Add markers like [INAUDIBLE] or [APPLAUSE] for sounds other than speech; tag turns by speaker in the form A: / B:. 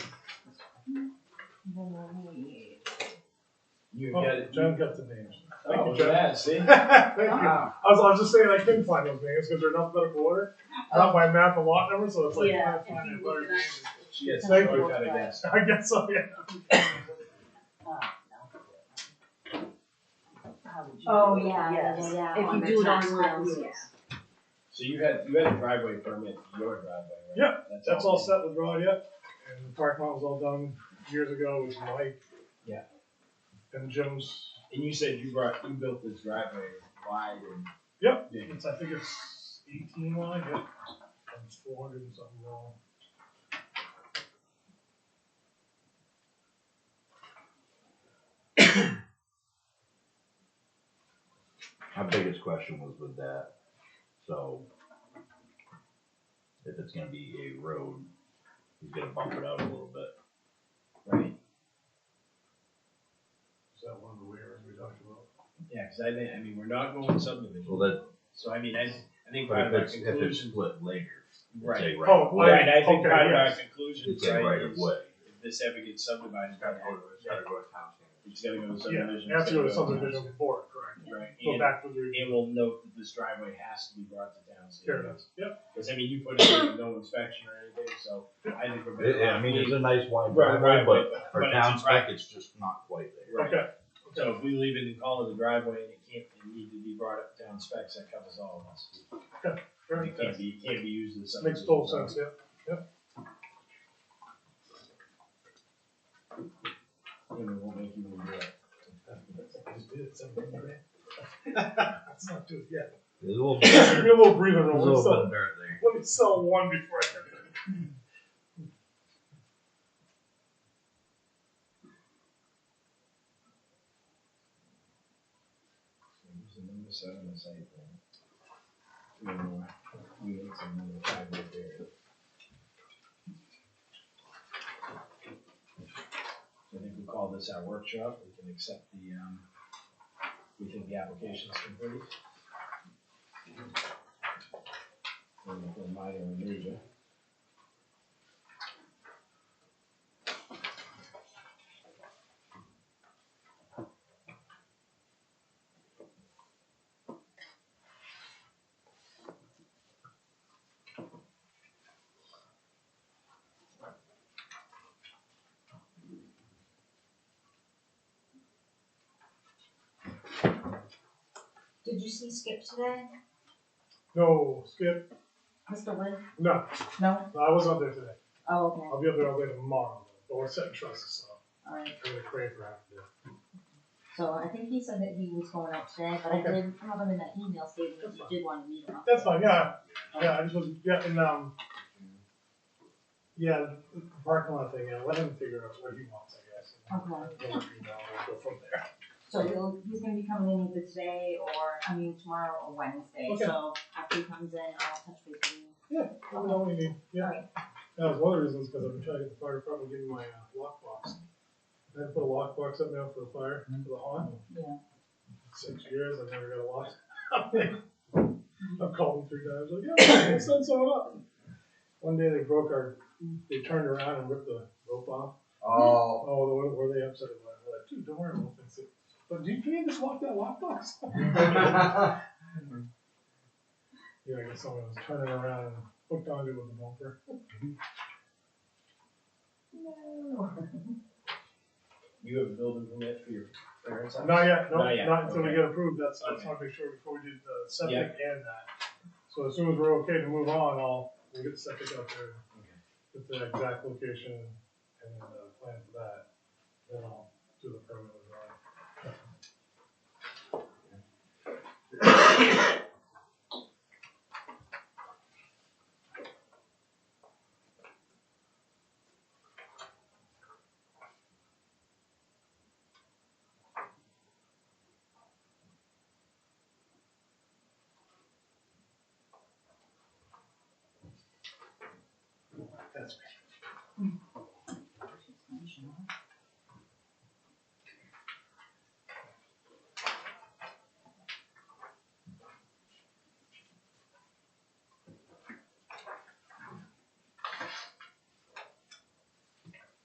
A: You
B: Oh,
A: get it.
B: John got the
A: [LAUGHS]
B: names.
A: Oh,
B: you,
A: look
B: John.
A: at that, see?
B: Thank you. I
C: Wow.
B: was, I was just saying I couldn't find those names because they're in alphabetical order. Not by map and lot number, so it's like
D: Yeah,
B: I find
D: if
B: it
D: you look
B: better
D: it up.
B: names. [LAUGHS]
A: She has
B: Thank
A: no
B: you.
A: doubt against.
B: I guess so. Yeah.
D: Oh, yeah, yeah,
C: Yes.
D: yeah.
C: If
D: on
C: you
D: the
C: do it
D: tax
C: on your
D: bills,
C: own,
D: yeah.
A: So you had, you had a driveway permit for your driveway, right?
B: Yeah, That's all
A: been-
B: set with Rod yet, and the parking lot was all done years ago with Mike.
A: Yeah.
B: And Jim's.
A: And you said you brought, you built this driveway wide and.
B: Yep.
A: big.
B: It's, I think it's eighteen wide. Yep. It's four hundred and something long.
E: My biggest question was with that, so if it's gonna be a road, he's gonna bump it out a little bit.
A: Right,
B: Is that one of the waivers we talked about?
A: yeah, cause I think, I mean, we're not going subdivision,
E: Well, that,
A: so I mean, I, I think
E: but
A: part of
E: if
A: our
E: it's, if it's
A: conclusion.
E: split later, it's
A: Right,
E: a right
B: Oh,
E: of way.
A: right, I think
B: Okay,
A: part of our
B: yes.
A: conclusion,
E: It's a
A: right,
E: right of
A: is
E: way.
A: if this ever gets subdivided, it's gotta go to, it's gotta go to town standards. It's gotta go to subdivision.
B: Yeah, after the
A: it's gotta go to
B: subdivision
A: town
B: before, correct.
A: standards. Right,
B: Go
A: and-
B: back to the.
A: And we'll note that this driveway has to be brought to town
B: Fair
A: standards.
B: enough. Yep.
A: Cause I mean, you put it in no inspection or anything, so I think we're better.
E: It- I mean, it's a nice wide
A: Right,
E: driveway,
A: right,
E: but
A: but- but
E: for
A: it's a
E: town spec,
A: driveway.
E: it's just not quite there.
A: Right.
B: Okay.
A: So if we leave it and call it a driveway and it can't, it need to be brought up down specs, that covers all of us.
B: Fair
A: It can't
B: enough.
A: be, it can't be used as. a
B: Makes total sense, yeah.
A: You know, won't make you move it.
B: Let's not do it yet. [COUGHS]
E: There's a little bit,
B: Give
E: there's
B: me a little breather
E: a
B: room. Let me
E: little bit
B: sell,
E: of dirt there.
B: let me sell one before I get it.
A: Who's the number seven on the site plan? Three more. We need some number five right there. I think we call this our workshop, we can accept the, um, we think the application's complete. And if we're minor or major.
D: Did you see Skip today,
B: No, Skip,
D: Mr. Lynn?
B: no,
D: No.
B: I was not there today.
D: Oh, okay,
B: I'll be up there all day tomorrow, but we're setting trusses up.
D: alright,
B: I'm gonna crave for half a day.
D: so I think he said that he was going out today, but I
B: Okay.
D: did have him in that email stating that
B: That's
D: you
B: fine.
D: did wanna meet him. up
B: That's
D: there.
B: fine, yeah, yeah, I just was, yeah, and, um, yeah, the parking lot thing, yeah, let him figure out what he wants, I guess.
D: Okay.
B: We'll work it out, we'll go from there.
D: So he'll, he's gonna be coming in either today or, I mean, tomorrow or Wednesday,
B: Okay.
D: so after he comes in, I'll touch base with you.
B: Let me know what you need, yeah.
D: Alright.
B: That was one of the reasons, because I've been trying to get the fire department to give me my uh, lockbox. I had to put a lockbox up now for the fire, for the haunt.
D: Yeah.
B: Six years, I've never got a lock. I've called them three times, like, yeah, we'll send someone up. One day they broke our, they turned around and ripped the rope off.
A: [LAUGHS] Oh.
B: Oh, [LAUGHS] the one where they upset it, I'm like, dude, don't worry, we'll fix it. But do you, can you just lock that lockbox?
E: Mm-hmm.
B: Yeah, I guess someone was turning around and hooked onto it with a bumper.
D: No.
A: You have a building permit for your parents' house?
B: Not yet, no,
A: Not yet,
B: not until we
A: okay.
B: get approved, that's, I just
A: Okay.
B: wanna make sure before we did the septic and that. So as soon as we're okay to move on, I'll, we'll get the septic out there,
A: Okay.
B: get the exact location and then the plan for that. Then I'll do the permit with Ryan. That's me.